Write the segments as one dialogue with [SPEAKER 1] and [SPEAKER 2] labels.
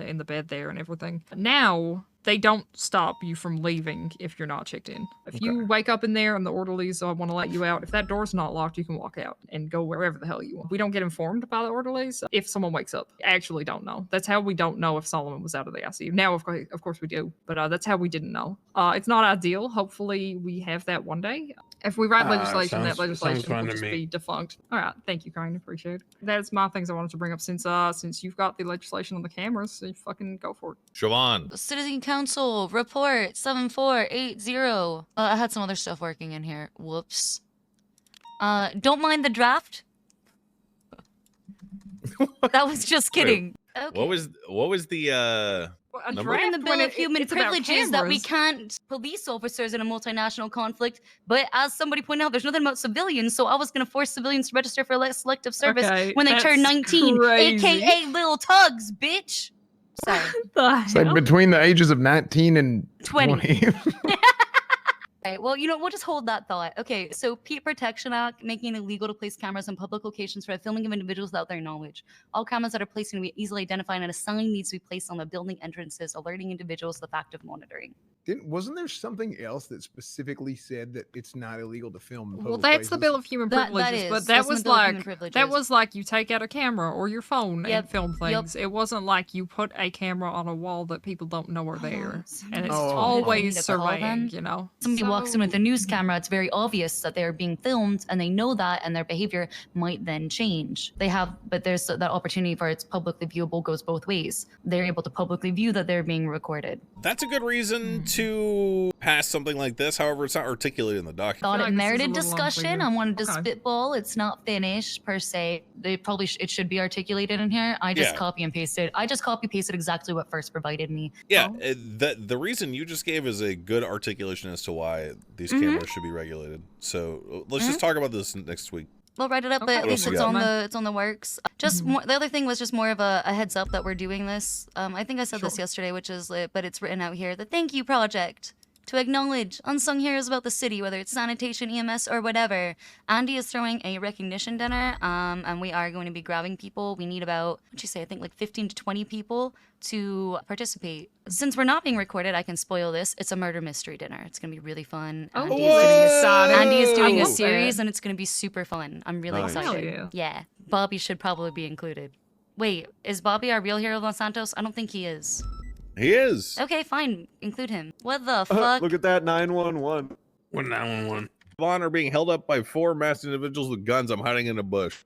[SPEAKER 1] in the bed there and everything. Now they don't stop you from leaving if you're not checked in. If you wake up in there and the orderlies uh, want to let you out, if that door's not locked, you can walk out and go wherever the hell you want. We don't get informed by the orderlies if someone wakes up. I actually don't know. That's how we don't know if Solomon was out of the ICU. Now, of course, of course we do, but uh, that's how we didn't know. Uh, it's not ideal. Hopefully, we have that one day. If we write
[SPEAKER 2] Ah,
[SPEAKER 1] legislation,
[SPEAKER 2] sounds-
[SPEAKER 1] that legislation
[SPEAKER 2] sounds fine
[SPEAKER 1] will
[SPEAKER 2] to
[SPEAKER 1] just
[SPEAKER 2] me.
[SPEAKER 1] be defunct. All right, thank you, kind. Appreciate it. That's my things I wanted to bring up since uh since you've got the legislation on the cameras, so you fucking go for it.
[SPEAKER 3] Siobhan.
[SPEAKER 4] Citizen Council report 7480. Uh, I had some other stuff working in here. Whoops. Uh, don't mind the draft. that was just
[SPEAKER 3] Wait,
[SPEAKER 4] kidding. Okay.
[SPEAKER 3] What was what was the uh
[SPEAKER 1] Well, a
[SPEAKER 3] Number-
[SPEAKER 4] We're in the
[SPEAKER 1] draft
[SPEAKER 4] Bill
[SPEAKER 1] when
[SPEAKER 4] of
[SPEAKER 1] it-
[SPEAKER 4] Human
[SPEAKER 1] it's about
[SPEAKER 4] Privileges that we
[SPEAKER 1] cameras.
[SPEAKER 4] can't police officers in a multinational conflict. But as somebody pointed out, there's nothing about civilians. So I was going to force civilians to register for le- selective service
[SPEAKER 1] Okay,
[SPEAKER 4] when they turn
[SPEAKER 1] that's
[SPEAKER 4] 19,
[SPEAKER 1] crazy.
[SPEAKER 4] aka little tugs, bitch. Sorry,
[SPEAKER 1] The
[SPEAKER 2] It's like
[SPEAKER 1] hell?
[SPEAKER 2] between the ages of 19 and
[SPEAKER 4] 20.
[SPEAKER 2] 20.
[SPEAKER 4] All right, well, you know, we'll just hold that thought. Okay, so Pete Protection Act making it illegal to place cameras on public locations for the filming of individuals without their knowledge. All cameras that are placed can be easily identified, and a sign needs to be placed on the building entrances, alerting individuals to the fact of monitoring.
[SPEAKER 5] Didn't wasn't there something else that specifically said that it's not illegal to film? in
[SPEAKER 1] Well,
[SPEAKER 5] public
[SPEAKER 1] that's the
[SPEAKER 5] places?
[SPEAKER 1] Bill of Human
[SPEAKER 4] That,
[SPEAKER 1] Privileges,
[SPEAKER 4] that is,
[SPEAKER 1] but that
[SPEAKER 4] that's in the
[SPEAKER 1] was
[SPEAKER 4] Bill of Human
[SPEAKER 1] like
[SPEAKER 4] Privileges.
[SPEAKER 1] that was like you take out a camera or your phone
[SPEAKER 4] Yep,
[SPEAKER 1] and film
[SPEAKER 4] yep.
[SPEAKER 1] things. It wasn't like you put a camera on a wall that people don't know are there, and it's
[SPEAKER 2] Oh, oh, oh.
[SPEAKER 1] always
[SPEAKER 4] Something to call them.
[SPEAKER 1] surveying. You know,
[SPEAKER 4] Somebody walks in with a news camera, it's very obvious that they're being filmed and they know that, and their behavior might then change. They have, but there's that opportunity for it's publicly viewable goes both ways. They're able to publicly view that they're being recorded.
[SPEAKER 6] That's a good
[SPEAKER 4] Hmm.
[SPEAKER 6] reason to pass something like this. However, it's not articulated in the document.
[SPEAKER 4] Thought
[SPEAKER 1] like this
[SPEAKER 4] it
[SPEAKER 1] is a
[SPEAKER 4] merited
[SPEAKER 1] little
[SPEAKER 4] discussion.
[SPEAKER 1] unclear.
[SPEAKER 4] I wanted to
[SPEAKER 1] Okay.
[SPEAKER 4] spitball. It's not finished per se. They probably sh- it should be articulated in here. I just
[SPEAKER 6] Yeah.
[SPEAKER 4] copy and pasted. I just copy pasted exactly what first provided me.
[SPEAKER 6] Yeah,
[SPEAKER 4] Oh.
[SPEAKER 6] uh, the the reason you just gave is a good articulation as to why these
[SPEAKER 4] Mhm.
[SPEAKER 6] cameras should be regulated. So uh, let's
[SPEAKER 4] Mm-hmm.
[SPEAKER 6] just talk about this n- next week.
[SPEAKER 4] We'll write it up, but
[SPEAKER 1] Okay.
[SPEAKER 4] at
[SPEAKER 6] What
[SPEAKER 4] least
[SPEAKER 6] else you
[SPEAKER 4] it's
[SPEAKER 6] got?
[SPEAKER 4] on the it's on the works. Just
[SPEAKER 1] Mhm.
[SPEAKER 4] more, the other thing was just more of a, a heads up that we're doing this. Um, I think I said this
[SPEAKER 1] Sure.
[SPEAKER 4] yesterday, which is lit, but it's written out here. The thank you project to acknowledge unsung heroes about the city, whether it's sanitation, EMS, or whatever. Andy is throwing a recognition dinner, um, and we are going to be grabbing people. We need about what'd you say? I think like 15 to 20 people to participate. Since we're not being recorded, I can spoil this. It's a murder mystery dinner. It's gonna be really fun.
[SPEAKER 1] Oh,
[SPEAKER 4] Andy
[SPEAKER 1] Andy's
[SPEAKER 4] is doing
[SPEAKER 1] getting
[SPEAKER 4] a
[SPEAKER 1] excited.
[SPEAKER 4] Andy is doing
[SPEAKER 1] I
[SPEAKER 4] a
[SPEAKER 1] love
[SPEAKER 4] series
[SPEAKER 1] that.
[SPEAKER 4] and it's going to be super fun. I'm really
[SPEAKER 2] Nice.
[SPEAKER 1] Hell
[SPEAKER 4] excited.
[SPEAKER 1] yeah.
[SPEAKER 4] Bobby should probably be included. Wait, is Bobby our real hero, Los Santos? I don't think he is.
[SPEAKER 6] He is.
[SPEAKER 4] Okay, fine. Include him. What the
[SPEAKER 7] Uh,
[SPEAKER 4] fuck?
[SPEAKER 7] look at that 911.
[SPEAKER 2] What an one one.
[SPEAKER 6] Siobhan are being held up by four masked individuals with guns. I'm hiding in a bush.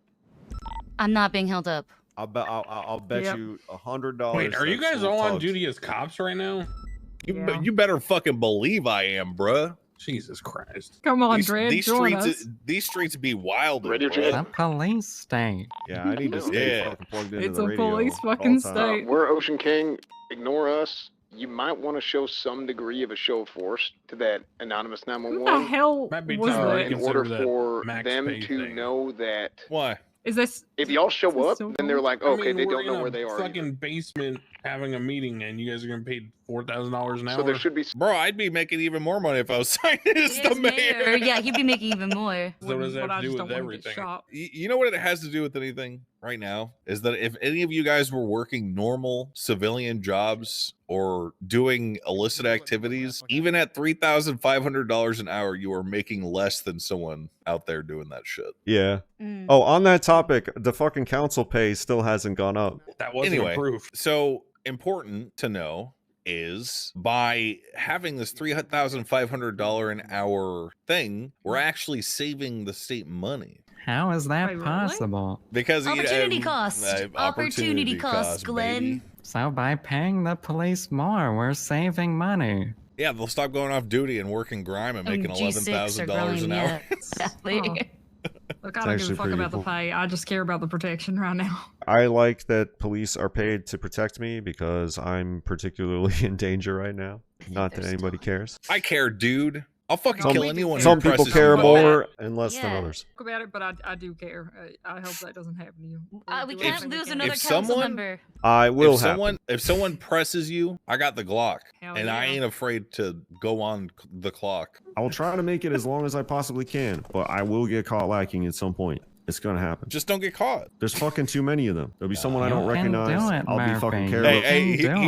[SPEAKER 4] I'm not being held up.
[SPEAKER 7] I'll bet I'll, I'll I'll bet
[SPEAKER 1] Yep.
[SPEAKER 7] you a hundred dollars.
[SPEAKER 2] Wait, are you
[SPEAKER 7] that's
[SPEAKER 2] guys
[SPEAKER 7] little
[SPEAKER 2] all on
[SPEAKER 7] tugs.
[SPEAKER 2] duty as cops right now?
[SPEAKER 6] You, be-
[SPEAKER 1] Yeah.
[SPEAKER 6] you better fucking believe I am, bruh.
[SPEAKER 2] Jesus Christ.
[SPEAKER 1] Come on,
[SPEAKER 6] These,
[SPEAKER 1] Dred,
[SPEAKER 6] these
[SPEAKER 1] join
[SPEAKER 6] streets,
[SPEAKER 1] us.
[SPEAKER 6] these streets be wild.
[SPEAKER 8] Ready,
[SPEAKER 6] bruh.
[SPEAKER 8] Dred?
[SPEAKER 9] police state.
[SPEAKER 7] Yeah, I need to stay
[SPEAKER 6] Yeah.
[SPEAKER 7] fucking plugged into
[SPEAKER 1] It's
[SPEAKER 7] the
[SPEAKER 1] a
[SPEAKER 7] radio
[SPEAKER 1] police
[SPEAKER 7] at all
[SPEAKER 1] fucking
[SPEAKER 7] times.
[SPEAKER 1] state. Right.
[SPEAKER 8] Uh, We're Ocean King. Ignore us. You might want to show some degree of a show of force to that anonymous
[SPEAKER 1] Who the
[SPEAKER 8] 911
[SPEAKER 1] hell
[SPEAKER 2] Might be
[SPEAKER 1] was
[SPEAKER 2] time
[SPEAKER 8] uh,
[SPEAKER 2] to
[SPEAKER 1] that?
[SPEAKER 8] in
[SPEAKER 2] reconsider
[SPEAKER 8] order
[SPEAKER 2] that
[SPEAKER 8] for
[SPEAKER 2] Max
[SPEAKER 8] them
[SPEAKER 2] Pay
[SPEAKER 8] to
[SPEAKER 2] thing.
[SPEAKER 8] know that
[SPEAKER 6] Why?
[SPEAKER 1] Is this?
[SPEAKER 8] if y'all
[SPEAKER 1] This
[SPEAKER 8] show
[SPEAKER 1] is
[SPEAKER 8] up,
[SPEAKER 1] so
[SPEAKER 8] then they're
[SPEAKER 1] cool.
[SPEAKER 8] like,
[SPEAKER 2] I
[SPEAKER 8] okay,
[SPEAKER 2] mean,
[SPEAKER 8] they
[SPEAKER 2] we're
[SPEAKER 8] don't
[SPEAKER 2] in a
[SPEAKER 8] know where they are. either.
[SPEAKER 2] Fucking basement having a meeting, and you guys are gonna pay four thousand dollars an hour.
[SPEAKER 8] So there should be s-
[SPEAKER 6] Bro, I'd be making even more money if I was signing as the
[SPEAKER 4] Yes,
[SPEAKER 6] mayor.
[SPEAKER 4] mayor. Yeah, he'd be making even more.
[SPEAKER 2] So what does
[SPEAKER 1] But
[SPEAKER 2] that
[SPEAKER 1] I
[SPEAKER 2] have to
[SPEAKER 1] just
[SPEAKER 2] do
[SPEAKER 1] don't wanna
[SPEAKER 2] with
[SPEAKER 1] get
[SPEAKER 2] everything?
[SPEAKER 1] shot.
[SPEAKER 6] Y- You know what it has to do with anything right now is that if any of you guys were working normal civilian jobs or doing illicit activities, even at three thousand five hundred dollars an hour, you are making less than someone out there doing that shit.
[SPEAKER 7] Yeah.
[SPEAKER 4] Mm.
[SPEAKER 7] Oh, on that topic, the fucking council pay still hasn't gone up.
[SPEAKER 2] That wasn't
[SPEAKER 6] Anyway.
[SPEAKER 2] approved.
[SPEAKER 6] So important to know is by having this three thousand five hundred dollar an hour thing, we're actually saving the state money
[SPEAKER 9] How is that
[SPEAKER 1] Wait, really?
[SPEAKER 9] possible?
[SPEAKER 6] because you know,
[SPEAKER 4] Opportunity
[SPEAKER 6] um,
[SPEAKER 4] cost.
[SPEAKER 6] uh,
[SPEAKER 4] Opportunity cost, Glenn.
[SPEAKER 6] baby.
[SPEAKER 9] So by paying the police more, we're saving money.
[SPEAKER 6] Yeah, they'll stop going off duty and working grime and
[SPEAKER 4] And
[SPEAKER 6] making eleven
[SPEAKER 4] G6
[SPEAKER 6] thousand
[SPEAKER 4] Oh, are
[SPEAKER 6] dollars an
[SPEAKER 4] growing,
[SPEAKER 6] hour.
[SPEAKER 4] yeah, exactly.
[SPEAKER 1] Oh. Look, I don't
[SPEAKER 7] It's
[SPEAKER 1] give
[SPEAKER 7] actually
[SPEAKER 1] a fuck
[SPEAKER 7] pretty
[SPEAKER 1] about
[SPEAKER 7] cool.
[SPEAKER 1] the pay. I just care about the protection right now.
[SPEAKER 7] I like that police are paid to protect me because I'm particularly in danger right now.
[SPEAKER 4] think
[SPEAKER 7] Not that
[SPEAKER 4] there's
[SPEAKER 7] anybody
[SPEAKER 4] still-
[SPEAKER 7] cares.
[SPEAKER 6] I care, dude. I'll fucking
[SPEAKER 7] Some-
[SPEAKER 6] kill anyone.
[SPEAKER 7] Some
[SPEAKER 6] who
[SPEAKER 7] people
[SPEAKER 6] presses
[SPEAKER 7] care
[SPEAKER 6] me.
[SPEAKER 1] about
[SPEAKER 7] more and less than
[SPEAKER 4] Yeah.
[SPEAKER 7] others.
[SPEAKER 1] Talk about it, but I, I do care. I, I hope that doesn't happen to you. We'll
[SPEAKER 4] Uh, we
[SPEAKER 1] do
[SPEAKER 4] can't
[SPEAKER 1] everything we
[SPEAKER 4] lose
[SPEAKER 1] can.
[SPEAKER 4] another
[SPEAKER 6] If
[SPEAKER 4] council
[SPEAKER 6] someone-
[SPEAKER 4] member.
[SPEAKER 7] I will
[SPEAKER 6] if
[SPEAKER 7] have.
[SPEAKER 6] someone if someone presses you, I got the Glock,
[SPEAKER 1] Hell
[SPEAKER 6] and I
[SPEAKER 1] yeah.
[SPEAKER 6] ain't afraid to go on c- the clock.
[SPEAKER 7] I will try to make it as long as I possibly can, but I will get caught lacking at some point. It's gonna happen.
[SPEAKER 6] Just don't get caught.
[SPEAKER 7] There's fucking too many of them. There'll be someone I
[SPEAKER 9] Uh, You
[SPEAKER 7] don't
[SPEAKER 9] can do
[SPEAKER 7] recognize.
[SPEAKER 9] it,
[SPEAKER 7] I'll be fucking
[SPEAKER 9] Murphy.
[SPEAKER 7] careless.
[SPEAKER 6] Hey,
[SPEAKER 9] Hey,
[SPEAKER 6] hey, he-
[SPEAKER 9] Dylan.